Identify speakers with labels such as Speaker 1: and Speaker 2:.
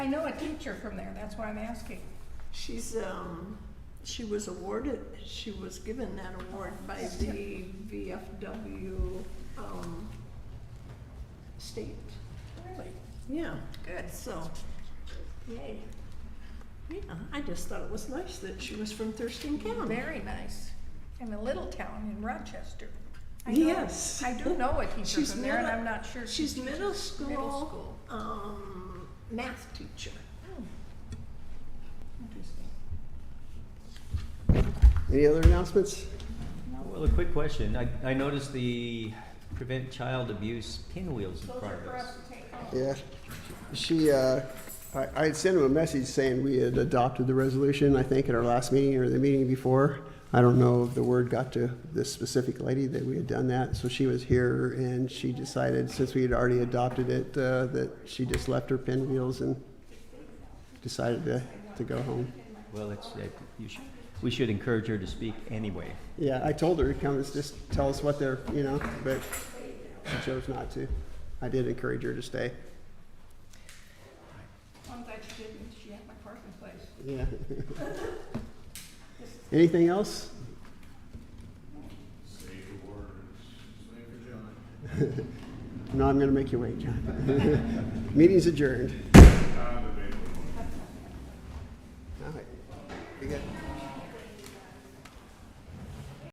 Speaker 1: know a teacher from there, that's why I'm asking.
Speaker 2: She's, um, she was awarded, she was given that award by the VFW, um, state.
Speaker 1: Really?
Speaker 2: Yeah,
Speaker 1: Good.
Speaker 2: so, yay. Yeah, I just thought it was nice that she was from Thurston County.
Speaker 1: Very nice. In a little town in Rochester. I know-
Speaker 2: Yes.
Speaker 1: I do know a teacher
Speaker 2: She's
Speaker 1: from there, and
Speaker 2: middle-
Speaker 1: I'm not sure. she
Speaker 2: She's
Speaker 1: teaches
Speaker 2: middle
Speaker 1: Middle
Speaker 2: school,
Speaker 1: school.
Speaker 2: um, math teacher.
Speaker 1: Hmm. Interesting.
Speaker 3: Any other announcements?
Speaker 4: Well, a quick question. I, I noticed the prevent child abuse pinwheels in
Speaker 1: Those are for us
Speaker 4: progress.
Speaker 1: to take home.
Speaker 3: Yeah. She, uh, I, I had sent him a message saying we had adopted the resolution, I think, at our last meeting or the meeting before. I don't know if the word got to this specific lady that we had done that, so she was here and she decided, since we had already adopted it, uh, that she just left her pinwheels and decided to, to go home.
Speaker 4: Well, it's, uh, you should, we should encourage her to speak anyway.
Speaker 3: Yeah, I told her to come, and just tell us what they're, you know, but she chose not to. I did encourage her to stay.
Speaker 1: I'm glad she didn't, she had my parking place.
Speaker 3: Yeah. Anything else? Save the words, save the John. No, I'm gonna make you wait, John. Meeting's adjourned. All right. We got